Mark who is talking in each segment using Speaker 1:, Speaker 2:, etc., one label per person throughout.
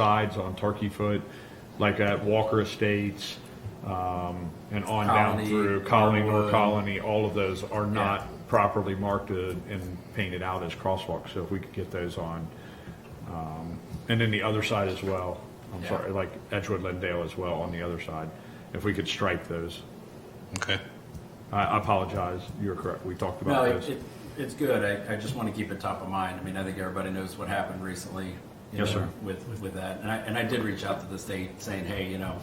Speaker 1: sides on Turkey Foot, like at Walker Estates, um, and on down
Speaker 2: Colony,
Speaker 1: through Colony, North
Speaker 2: Norwood.
Speaker 1: Colony, all of those are not properly marked uh, and painted out as crosswalks, so if we could get those on. um, And then the other side as well, I'm
Speaker 2: Yeah.
Speaker 1: sorry, like Edgewood Lindale as well on the other side, if we could stripe those.
Speaker 3: Okay.
Speaker 1: I I apologize, you're correct, we talked
Speaker 2: No,
Speaker 1: about
Speaker 2: it,
Speaker 1: those.
Speaker 2: it, it's good. I, I just want to keep it top of mind. I mean, I think everybody knows what happened recently. you
Speaker 1: Yes,
Speaker 2: know,
Speaker 1: sir.
Speaker 2: With, with that. And I, and I did reach out to the state saying, hey, you know,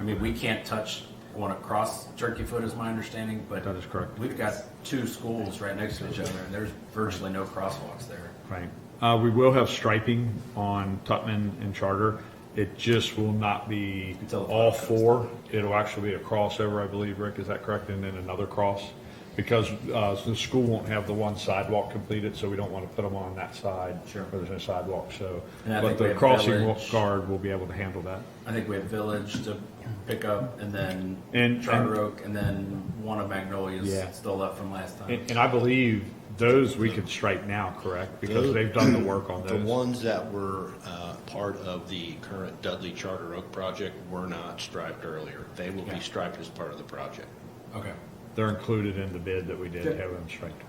Speaker 2: I mean, we can't touch one across Turkey Foot is my understanding, but.
Speaker 1: That is correct.
Speaker 2: We've got two schools right next to each other and there's virtually no crosswalks there.
Speaker 1: Right. Uh, we will have striping on Tutman and Charter. It just will not be
Speaker 2: Until the
Speaker 1: all
Speaker 2: fire comes.
Speaker 1: four. It'll actually be a crossover, I believe, Rick, is that correct? And then another cross? Because, uh, the school won't have the one sidewalk completed, so we don't want to put them on that side.
Speaker 2: Sure.
Speaker 1: Where there's no sidewalk, so.
Speaker 2: And I
Speaker 1: But
Speaker 2: think we
Speaker 1: the
Speaker 2: have
Speaker 1: crossing wa-
Speaker 2: Village.
Speaker 1: guard will be able to handle that.
Speaker 2: I think we have Village to pick up and then.
Speaker 1: And-
Speaker 2: Charter
Speaker 1: and-
Speaker 2: Oak and then one of
Speaker 1: Yeah.
Speaker 2: Magnolia's still left from last time.
Speaker 1: And, and I believe those we can stripe now, correct? Because they've done the work on
Speaker 3: The
Speaker 1: those.
Speaker 3: ones that were uh, part of the current Dudley Charter Oak project were not striped earlier. They will
Speaker 2: Okay.
Speaker 3: be striped as part of the project.
Speaker 2: Okay,
Speaker 1: They're included in the bid that we did
Speaker 2: Good.
Speaker 1: have them striped.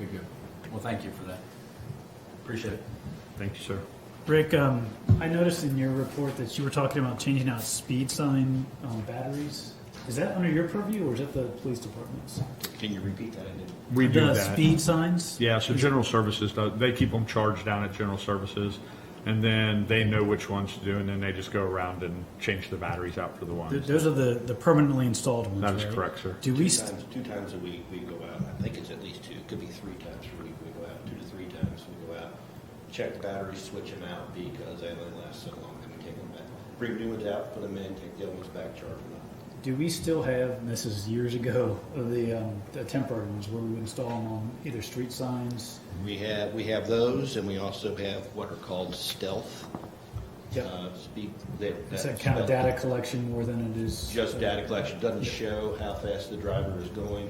Speaker 2: good, good. Well, thank you for that. Appreciate it.
Speaker 1: Thank you, sir.
Speaker 4: Rick, um, I noticed in your report that you were talking about changing out speed sign on batteries. Is that under your purview or is that the police department's?
Speaker 3: Can you repeat that? I didn't-
Speaker 1: We do
Speaker 4: The
Speaker 1: that.
Speaker 4: speed signs?
Speaker 1: Yeah, so general services, does- they keep them charged down at general services, and then they know which ones to do, and then they just go around and change the batteries out for the
Speaker 4: Th-
Speaker 1: ones.
Speaker 4: Those are the, the permanently installed ones,
Speaker 1: That is
Speaker 4: right?
Speaker 1: correct, sir.
Speaker 4: Do we,
Speaker 3: Two
Speaker 4: st-
Speaker 3: times, two times a week we go out. I think it's at least two. It could be three times a week we go out, two to three times we go out. Check the batteries, switch them out because they only last so long. Then we take them back. Bring new ones out, put them in, take the old ones back, charge them up.
Speaker 4: do we still have, and this is years ago, of the, um, the temporary ones where we would install them on either street signs?
Speaker 3: We have, we have those, and we also have what are called stealth.
Speaker 4: Yep.
Speaker 3: uh, Speed, that.
Speaker 4: Is that kind of
Speaker 3: stealth-
Speaker 4: data collection more than it is? uh,
Speaker 3: Just data collection, doesn't show how fast the driver is going,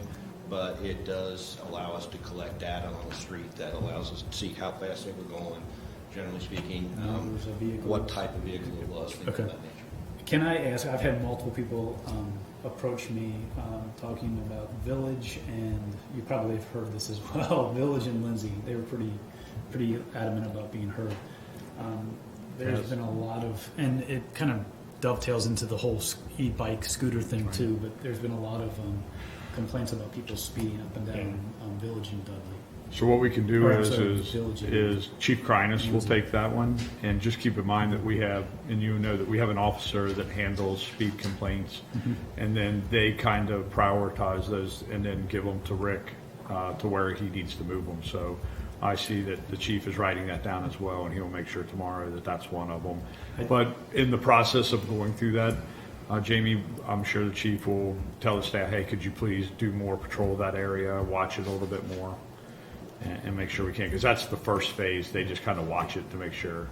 Speaker 3: but it does allow us to collect data on the street that allows us to see how fast they were going, generally speaking. um,
Speaker 4: Numbers of vehicles.
Speaker 3: What type of vehicle it was, things of
Speaker 4: Okay.
Speaker 3: that nature.
Speaker 4: Can I ask? I've had multiple people um, approach me um, talking about Village, and you probably have heard this as well. Village and Lindsay, they were pretty, pretty adamant about being heard. Um, there's
Speaker 1: Yes.
Speaker 4: been a lot of, and it kind of dovetails into the whole s- e-bike scooter thing too. But there's been a lot of um, complaints about people speeding up and down um, Village and Dudley.
Speaker 1: So what we can do
Speaker 4: Or, I'm
Speaker 1: is,
Speaker 4: sorry,
Speaker 1: is,
Speaker 4: diligent.
Speaker 1: is Chief Crinus will take that one, and just keep in mind that we have, and you know that we have an officer that handles speed complaints, and then they kind of prioritize those and then give them to Rick, uh, to where he needs to move them, so I see that the chief is writing that down as well, and he'll make sure tomorrow that that's one of them. But in the process of going through that, uh, Jamie, I'm sure the chief will tell the staff, hey, could you please do more patrol of that area, watch it a little bit more? and, and make sure we can, because that's the first phase. They just kind of watch it to make sure.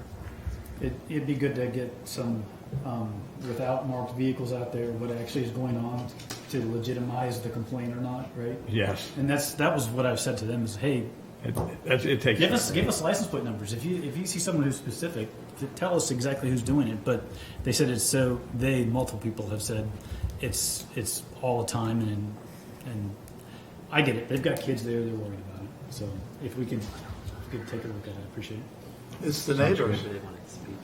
Speaker 4: It, it'd be good to get some, um, without marked vehicles out there, what actually is going on to legitimize the complaint or not, right?
Speaker 1: Yes,
Speaker 4: And that's, that was what I've said to them is, hey,
Speaker 1: it, it, it takes.
Speaker 4: give us, give us license plate numbers. If you, if you see someone who's specific, t- tell us exactly who's doing it. But they said it's so, they, multiple people have said it's, it's all the time and, and I get it. They've got kids there, they're worried about it. So if we can, if we could take a look at it, I appreciate it.
Speaker 5: It's the neighbors.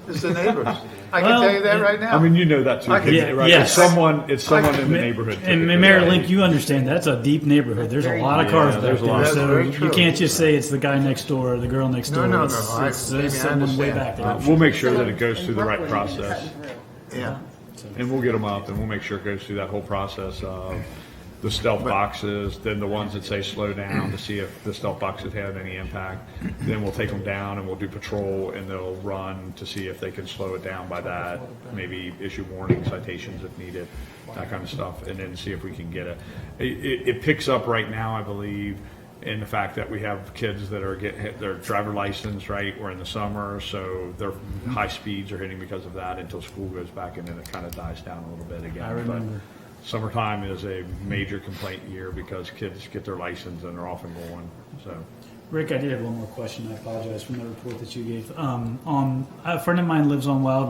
Speaker 5: It's the neighbors. I can
Speaker 4: Well,
Speaker 5: tell you that
Speaker 4: it-
Speaker 5: right now.
Speaker 1: I mean, you know that too,
Speaker 5: I can-
Speaker 4: Yeah,
Speaker 1: right?
Speaker 4: yes.
Speaker 1: It's someone, it's someone in the
Speaker 4: Ma-
Speaker 1: neighborhood.
Speaker 4: And
Speaker 1: typically,
Speaker 4: Mayor
Speaker 1: right?
Speaker 4: Link, you understand that's a deep neighborhood. There's a lot of
Speaker 1: Yeah,
Speaker 4: cars
Speaker 1: there's
Speaker 4: back
Speaker 1: a lot.
Speaker 4: there,
Speaker 1: That's
Speaker 4: so
Speaker 5: very
Speaker 4: you
Speaker 5: true.
Speaker 4: can't just say it's the guy next door or the girl next
Speaker 5: No,
Speaker 4: door.
Speaker 5: no, no,
Speaker 4: It's,
Speaker 5: I-
Speaker 4: it's,
Speaker 5: maybe I
Speaker 4: it's someone way
Speaker 5: understand.
Speaker 4: back there.
Speaker 1: Uh, We'll make sure that it goes through the right process,
Speaker 5: Yeah.
Speaker 1: and we'll get them up, and we'll make sure it goes through that whole process of the stealth boxes, then the ones that say slow down to see if the stealth boxes have any impact. Then we'll take them down and we'll do patrol, and they'll run to see if they can slow it down by that. Maybe issue warning citations if needed, that kind of stuff, and then see if we can get it. It, it- it picks up right now, I believe, in the fact that we have kids that are getting hit their driver license, right? We're in the summer, so their high speeds are hitting because of that until school goes back and then it kind of dies down a little bit again.
Speaker 4: I
Speaker 1: But
Speaker 4: remember.
Speaker 1: Summertime is a major complaint year because kids get their license and they're off and going, so.
Speaker 4: Rick, I did have one more question. I apologize from the report that you gave. Um, on a friend of mine lives on Wild